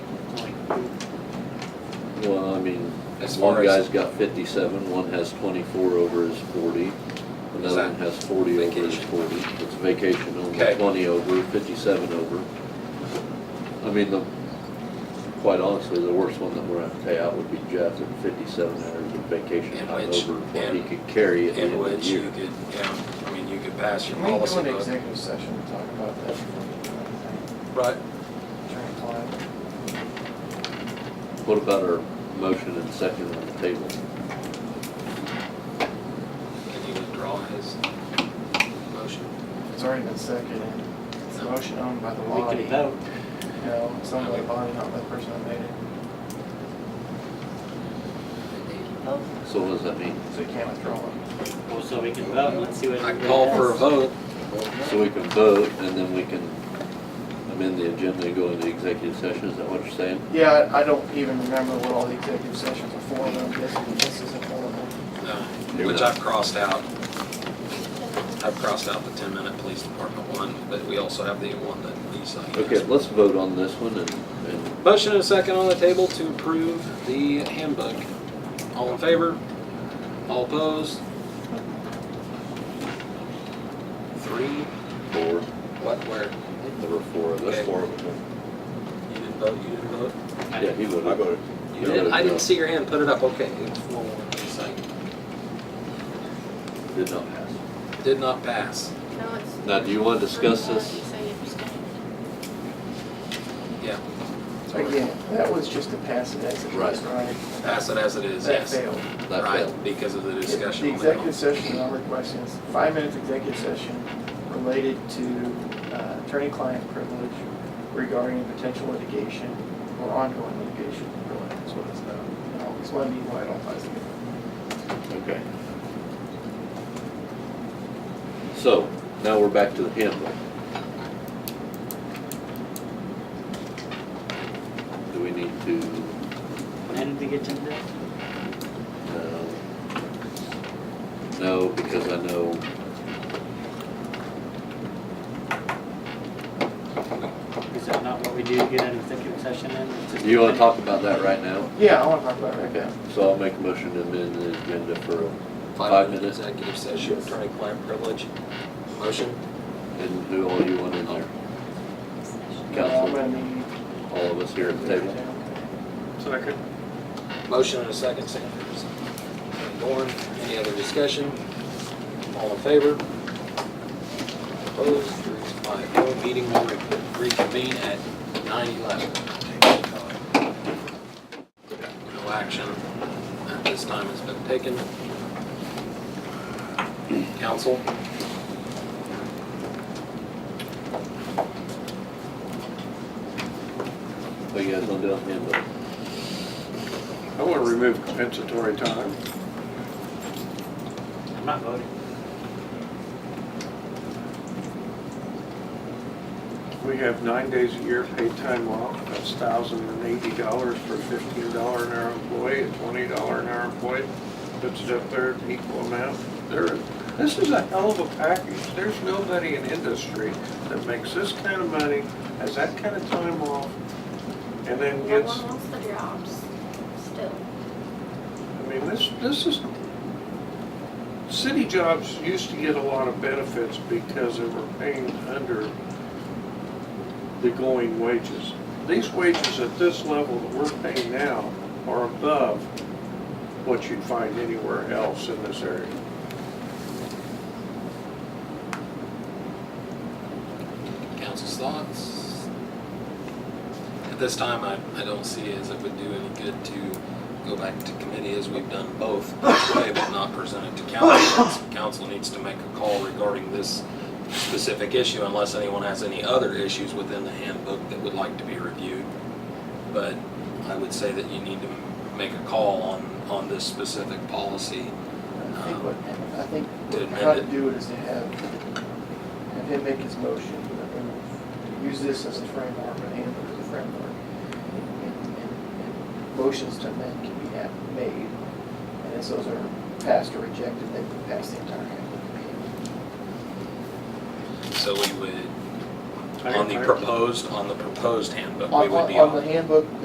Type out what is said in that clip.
mean, As far one as- guy's got fifty-seven, one has twenty-four over his forty, another one that has forty over his vacation? forty. It's vacation only, Okay. twenty over, fifty-seven over. I mean, the, quite honestly, the worst one that we're gonna pay out would be Jeff at fifty-seven hours of vacation And time which- over what he and- could carry at the end in of the which you year. could, yeah, I mean, you could pass your Can we go policy into book. executive session and talk about that before we do anything? Right, Attorney client? What about our motion and second on the table? can you withdraw his motion? It's already been seconded. It's a motion owned by the body. vote. No, it's owned by the body, not by the person that made it. So what does that mean? So you can't withdraw it. Well, so we can vote, let's see what. I everybody call for a has. vote, So we can vote and then we can amend the agenda and go into executive session, is that what you're saying? Yeah, I- I don't even remember what all the executive sessions are for, but I'm guessing this isn't one of them. no, Here we which go. I've crossed out. I've crossed out the ten-minute police department one, but we also have the one that Lisa. Okay, let's vote on this one and, and Motion and a second on the table to approve the handbook. All in favor? All opposed? Three, four, what, where? there were four of Okay. us. Four of them. You didn't vote, you didn't vote? Yeah, he I voted. voted. You did, I didn't see your hand, put it up, okay. It was four, one, it's like, Did not pass. Did not pass, No, it's. Now, do you wanna discuss this? You say abstain. yeah. Again, that was just a pass it as it is, right? Pass it as it is, That yes. failed. That failed. Right, because of the The discussion. later on. executive session I'm requesting is five minutes executive session related to uh, attorney-client privilege regarding potential litigation or ongoing litigation, really, that's what it's about. And I'll explain to you why it all ties together. Okay. So, now we're back to the handbook. Do we need to, And the agenda, uh, no, because I know is that not what we do, get an executive session in? It's just- You want to talk about that right now? Yeah, I want to talk about it right Okay, now. so I'll make a motion to amend the agenda for, Five Five minute minutes. executive session, attorney-client privilege. Motion? and who all you want in there, Uh, I'm Council. gonna need- all of us here at the table. Motion and a second, Sanders. Dorn, any other discussion? All in favor? Opposed, three, five, no. Meeting will re- reconvene at nine eleven. No action at this time has been taken. Council? What you guys want to do on the handbook? I want to remove compensatory time. I'm not voting. We have nine days a year paid time off. That's thousand and eighty dollars for fifteen dollar an hour employee, a twenty dollar an hour employee. Puts it up there at an equal amount. There, this is a hell of a package. There's nobody in industry that makes this kind of money, has that kind of time off, and then No gets, one wants the jobs, still. I mean, this, this is, city jobs used to get a lot of benefits because they were paying under the going wages. These wages at this level that we're paying now are above what you'd find anywhere else in this area. Council's thoughts? At this time, I, I don't see as it would do any good to go back to committee as we've done both this way, but not present it to council. It's- Council needs to make a call regarding this specific issue unless anyone has any other issues within the handbook that would like to be reviewed. But I would say that you need to make a call on, on this specific policy. I think what, I think To amend how to it. do it is to have, have him make his motion, and use this as a framework, and handbook as a framework. And- and- and Motions to amend can be at- made, and as those are passed or rejected, they can pass the entire handbook. So we would, on the proposed, on the proposed handbook, we On, would on be on the handbook,